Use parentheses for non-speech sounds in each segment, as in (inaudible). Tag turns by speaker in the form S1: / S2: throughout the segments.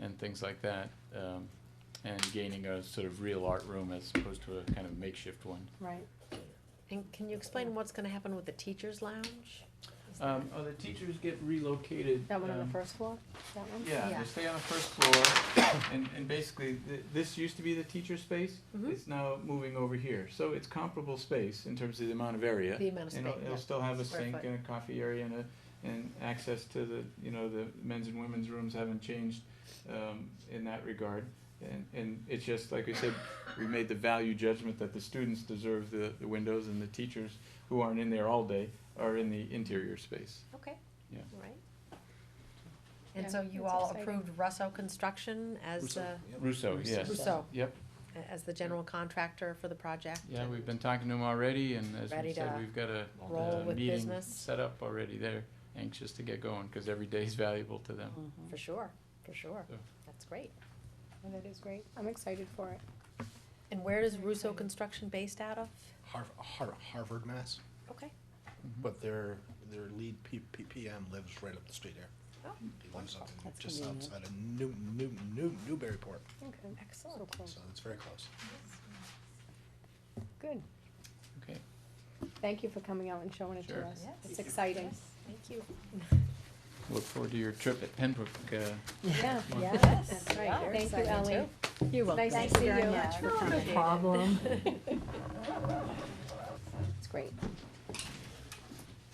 S1: and things like that, um, and gaining a sort of real art room as opposed to a kind of makeshift one.
S2: Right. And can you explain what's gonna happen with the teachers' lounge? Is that-
S1: Um, oh, the teachers get relocated.
S2: That one on the
S1: um,
S2: first floor, that one?
S1: Yeah, they stay on the first floor, (coughs) and, and basically, th- this used to be the teacher space,
S2: Mhm.
S1: it's now moving over here, so it's comparable space in terms of the amount of area.
S2: The amount of
S1: And it'll,
S2: space,
S1: it'll
S2: yeah.
S1: still have a
S2: Square
S1: sink
S2: foot.
S1: and a coffee area and a, and access to the, you know, the men's and women's rooms haven't changed, um, in that regard. And, and it's just, like I said, we made the value judgment that the students deserve the, the windows and the teachers who aren't in there all day are in the interior space.
S2: Okay.
S1: Yeah.
S2: All Right. And
S3: Yeah,
S2: so you
S3: that's
S2: all
S3: exciting.
S2: approved Russo Construction as
S4: Russo,
S2: the,
S4: yep.
S1: Russo, yes.
S2: Russo,
S1: Yep,
S2: a- as the general contractor for the project?
S1: yeah,
S2: and-
S1: we've been talking to them already, and as
S2: Ready
S1: we said,
S2: to
S1: we've got a,
S2: roll
S1: a
S2: with
S1: meeting
S2: business?
S1: set up already. They're anxious to get going, cause every day's valuable to them.
S2: For sure, for sure.
S1: Yeah.
S2: That's great.
S3: Oh, That is great. I'm excited for it.
S2: And where is Russo Construction based out of?
S4: Harv- Har- Harvard, Mass.
S2: Okay. Mm.
S4: But their, their lead P- P- PM lives right up the street here.
S2: Oh,
S4: He lives up in-
S5: That's
S4: just
S5: convenient.
S4: outside of New, New, New, Newburyport,
S3: Okay.
S2: Excellent.
S3: So cool.
S4: so it's very close.
S3: Good.
S1: Mm-hmm. Okay,
S3: Thank you for coming out and showing it to
S1: Sure.
S3: us.
S2: Yes.
S3: It's exciting.
S2: Thank you.
S1: look forward to your trip at Pembroke, uh,
S3: Yeah.
S1: Well,
S2: Yes,
S3: That's
S2: we
S3: right.
S2: are
S3: Thank you,
S2: excited
S3: Ellie.
S2: too.
S3: You're welcome. Nice
S5: Thank
S3: to
S5: you
S3: see
S5: very
S3: you.
S5: much for coming.
S2: Appreciate it.
S5: Problem.
S2: (laughs)
S3: It's great.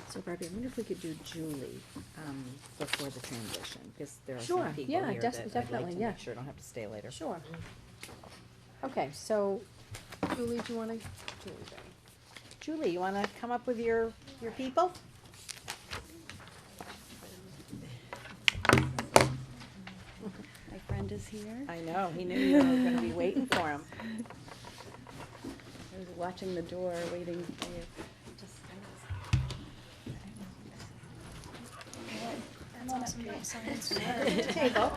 S5: So Barbie, I wonder if we could do Julie, um, before the transition, because there are
S3: Sure,
S5: some people
S3: yeah,
S5: here
S3: def-
S5: that I'd
S3: definitely,
S5: like to
S3: yeah.
S5: make sure don't have to stay later.
S3: Sure. Okay, so Julie, do you wanna, Julie, sorry. Julie, you wanna come up with your, your people?
S6: My friend is here.
S3: I know, he knew you were gonna be waiting for him.
S6: I was watching the door, waiting for you. Just- I was- I don't know.
S3: Table.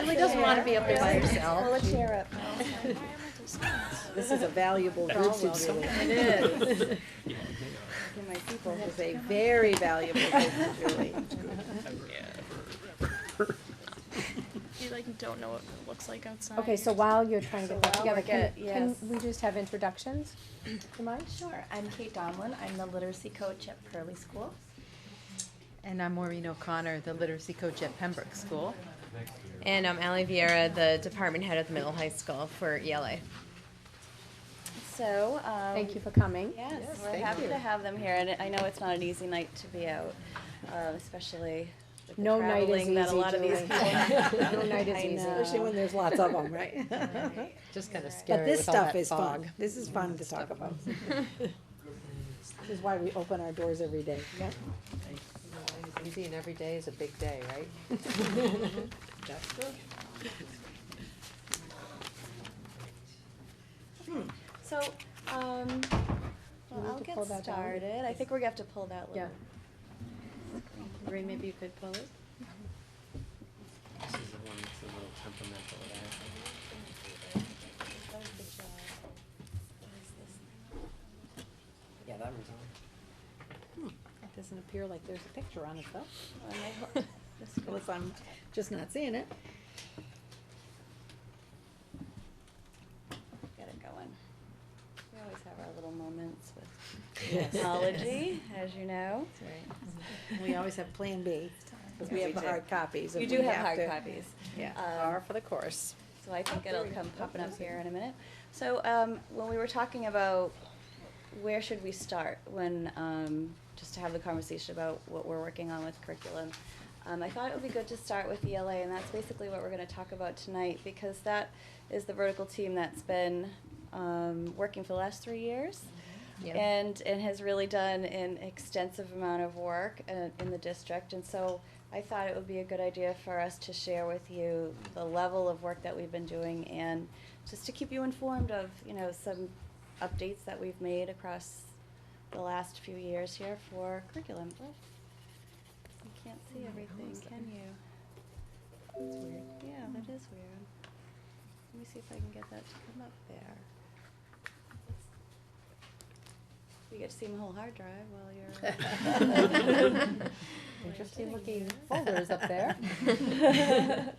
S3: Julie doesn't wanna be up there by herself. Pull a chair up.
S5: This is a valuable group to Julie.
S3: It
S5: (laughs)
S3: is.
S6: Give my people
S3: It's a very valuable group to
S2: (laughs)
S3: Julie.
S7: you like don't know what it looks like outside.
S3: Okay, so while you're trying to
S8: So
S3: get that
S8: while we're
S3: together, can,
S8: get-
S3: can
S8: yes.
S3: we just have introductions? Do you mind?
S8: Sure, I'm Kate Donlin, I'm the literacy coach at Pearly School.
S9: And I'm Maureen O'Connor, the literacy coach at Pembroke School. And I'm Allie Vieira, the department head at the middle high school for E ELA.
S8: So, um.
S3: Thank you for coming.
S8: Yes, we're happy to have them here, and I know it's not an easy night to be out, uh, especially with the
S3: No night is
S8: traveling that a
S3: easy,
S8: lot of these
S3: Julie.
S8: people.
S3: (laughs) No night is
S8: I
S3: easy.
S8: know.
S5: Especially when there's lots of them, (laughs) right?
S9: Just kind of
S5: But
S9: scary
S5: this
S9: with all
S5: stuff
S9: that
S5: is
S9: fog.
S5: fun. This is fun to talk (laughs) about. This is why we open our doors every day. Yeah.
S9: Easy and every day is a big day,
S2: (laughs)
S9: right?
S5: That's true.
S8: So, um,
S3: We need
S8: well, I'll
S3: to pull
S8: get
S3: that down.
S8: started, I think we're gonna have to pull that
S3: Yeah.
S8: little. Maureen, maybe you could pull it?
S10: This is the one that's a little temperamental that I have.
S8: That was good job. What is this now?
S10: Yeah, that one's on.
S5: Hmm. It doesn't appear like there's a picture on it though,
S8: Oh, and I hope- this goes-
S5: unless I'm just not seeing it.
S8: Get it going. We always have our little moments
S5: (laughs)
S8: with
S4: (laughs)
S8: technology, as you know.
S5: We always have Plan B, because we
S8: Yeah,
S5: (laughs)
S8: we
S5: have the
S8: do.
S5: hard copies. if
S8: You do have
S5: to.
S8: hard copies.
S5: Yeah.
S8: Um,
S9: for the course.
S8: So I think
S5: Oh,
S8: it'll
S5: there you
S8: come
S5: go.
S8: popping up
S5: Okay.
S8: here in a minute. So um, when we were talking about where should we start when, um, just to have the conversation about what we're working on with curriculum, um, I thought it would be good to start with ELA, and that's basically what we're going to talk about tonight because that is the vertical team that's been um, working for the last three years. and and has really done an extensive amount of work in, in the district and so I thought it would be a good idea for us to share with you the level of work that we've been doing and just to keep you informed of you know some updates that we've made across the last few years here for curriculum. You can't see everything, can you? That's weird. Yeah, that is weird. Let me see if I can get that to come up there. You get to see my whole hard drive while
S1: (laughs)
S8: you're. (laughs)
S5: (laughs)
S9: (laughs)
S2: (laughs)
S3: Interesting looking folders up there.